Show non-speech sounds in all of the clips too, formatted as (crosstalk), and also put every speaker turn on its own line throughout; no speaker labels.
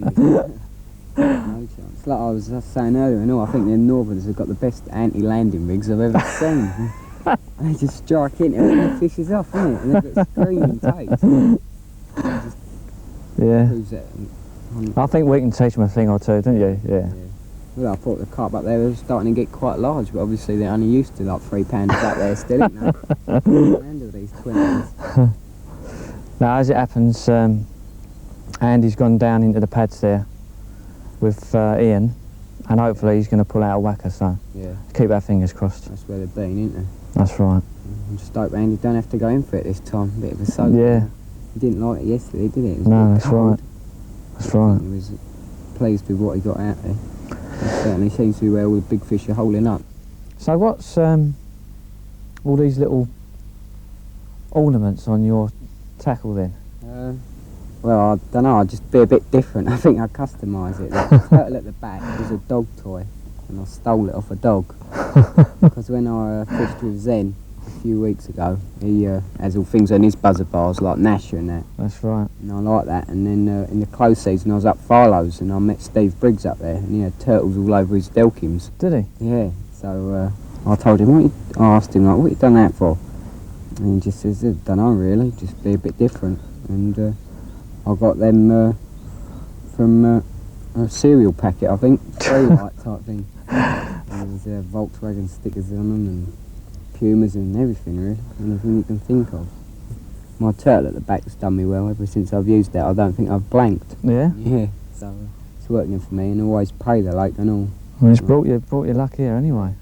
Wonderful.
(laughs)
No chance. It's like I was saying earlier, and all I think the Northerns have got the best anti-landing rigs I've ever
(laughs)
seen. they just strike into it and the fish is off, isn't it? And they've got screaming
(laughs)
toes.
Yeah.
Proves that. um,
I think we can teach them a thing or two, don't you? Yeah.
Well, I thought the carp up there was starting to get quite large, but obviously they're only used to like three pounders up there still, ain't they?
(laughs)
Can't handle these twenties.
Now, as it happens, um, Andy's gone down into the pads there with uh, Ian, and hopefully he's going to pull out a whacker, so
Yeah,
keep our fingers crossed.
that's where they've been, isn't they?
That's right.
I'm just hope Andy don't have to go in for it this time. Bit of a soak.
Yeah.
He didn't like it yesterday, did he? It was a
No,
bit
that's
cold.
right. That's right.
He was pleased with what he got out there. It certainly seems to be where all the big fish are holding up.
So, what's um, all these little ornaments on your tackle then?
Uh, well, I don't know. I'll just be a bit different. (laughs) I think I customise it. The turtle at the back was a dog toy, and I stole it off a dog. Because when I uh, fished with Zen a few weeks ago, he uh, has all things on his buzzer bars like Nasher and that,
That's right.
and I like that. And then uh, in the close season, I was up Farlow's and I met Steve Briggs up there, and he had turtles all over his delkims.
Did he?
Yeah, so uh, I told him, what you, I asked him, like, what you done that for? And he just says, don't know really, just be a bit different. And uh, I got them uh, from uh, a cereal packet, I (laughs) think, three light (laughs) type thing. There was uh, Volkswagen stickers on them and Pumas and everything really, anything you can think of. My turtle at the back's done me well ever since I've used that. I don't think I've blanked.
Yeah.
Yeah, (laughs) so uh, it's working for me and always pay the lake and all.
Well, it's brought you brought you luck here anyway.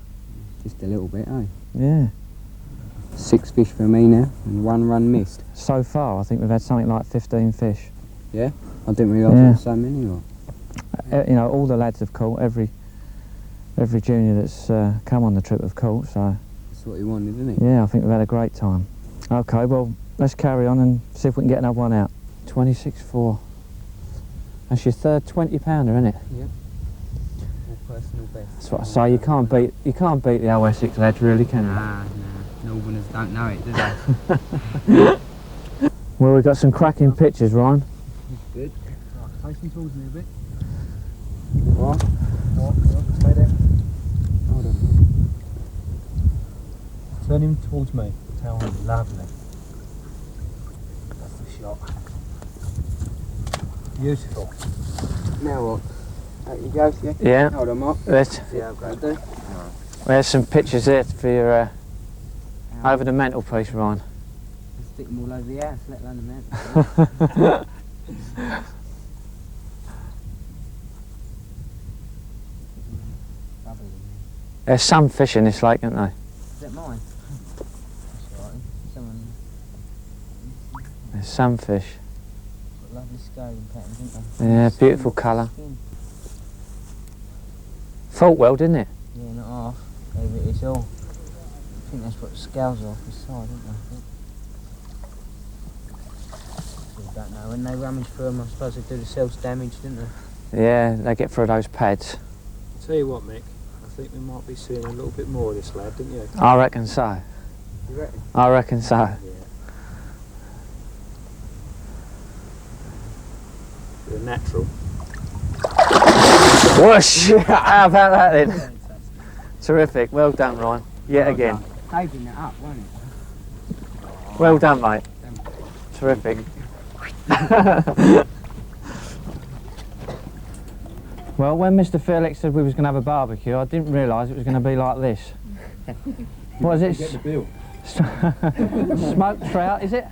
Just a little bit, eh?
Yeah.
Six fish for me now, and one run missed.
So far, I think we've had something like 15 fish.
I didn't realise
Yeah.
there were so many. Or
Uh, you know, all the lads have caught. Every every junior that's uh, come on the trip have caught. So
that's what he wanted, didn't he?
yeah, I think we've had a great time. Okay, well let's carry on and see if we can get another one out. Twenty-six four. That's your third twenty pounder, isn't it?
personal best.
That's what I say. You can't beat you can't beat the OSX lad, really, can you?
Nah, nah. Northerners don't know it, do
(laughs)
they?
Well, we've got some cracking pictures, Ryan.
Good.
Facing towards me a bit.
What?
Walk, walk, stay there.
Hold on.
Turn him towards me. Tell him lovely. That's the shot. Beautiful.
Now what? Out you go, yeah?
Yeah.
Hold on, Mark.
There's
See how I do.
there's some pictures there for your uh, over the mantelpiece, (laughs) Ryan.
Stick them all over the house, let alone
(laughs)
the mountain. Lovely.
There's some fish in this lake, aren't there?
Is that mine? That's alright. Someone
There's some fish.
got lovely scaling patterns, didn't they?
Yeah, beautiful colour.
Skin.
Fought well, didn't it?
Yeah, not half. Maybe it's all. I think that's what scales off the side, isn't it? I don't know. When they rummage through them, I suppose they do themselves damage, didn't they?
Yeah, they get through those pads.
Tell you what, Mick. I think we might be seeing a little bit more of this lad, didn't you?
I reckon so.
You reckon?
I reckon so.
The natural.
Whoosh! (laughs) How about that then? Terrific. Well done, Ryan. Yet again.
Saving that up, wasn't it?
Well done, mate. Terrific. (laughs) well, when Mr. Felix said we was going to have a barbecue, I didn't realise it was going to be like this. What is it?
bill.
(laughs) Smoked trout, is it?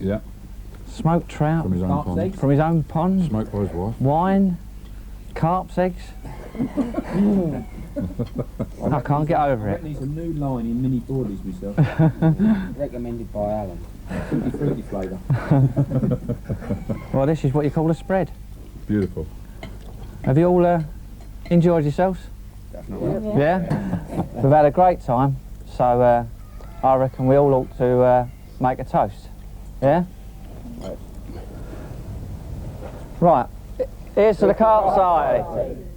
Yeah,
Smoked trout
from his own
Mark's
pond.
eggs.
from his own pond.
Smoked by his wife.
wine, carp's eggs. I can't get over it.
a new line in mini boardies myself.
Recommended by Alan.
Fruity, fruity flavour.
Well, this is what you call a spread.
Beautiful.
Have you all uh, enjoyed yourselves? Definitely. Yeah. We've had a great time, so uh, I reckon we all ought to uh, make a toast. Yeah. Right. Here's to the carp society.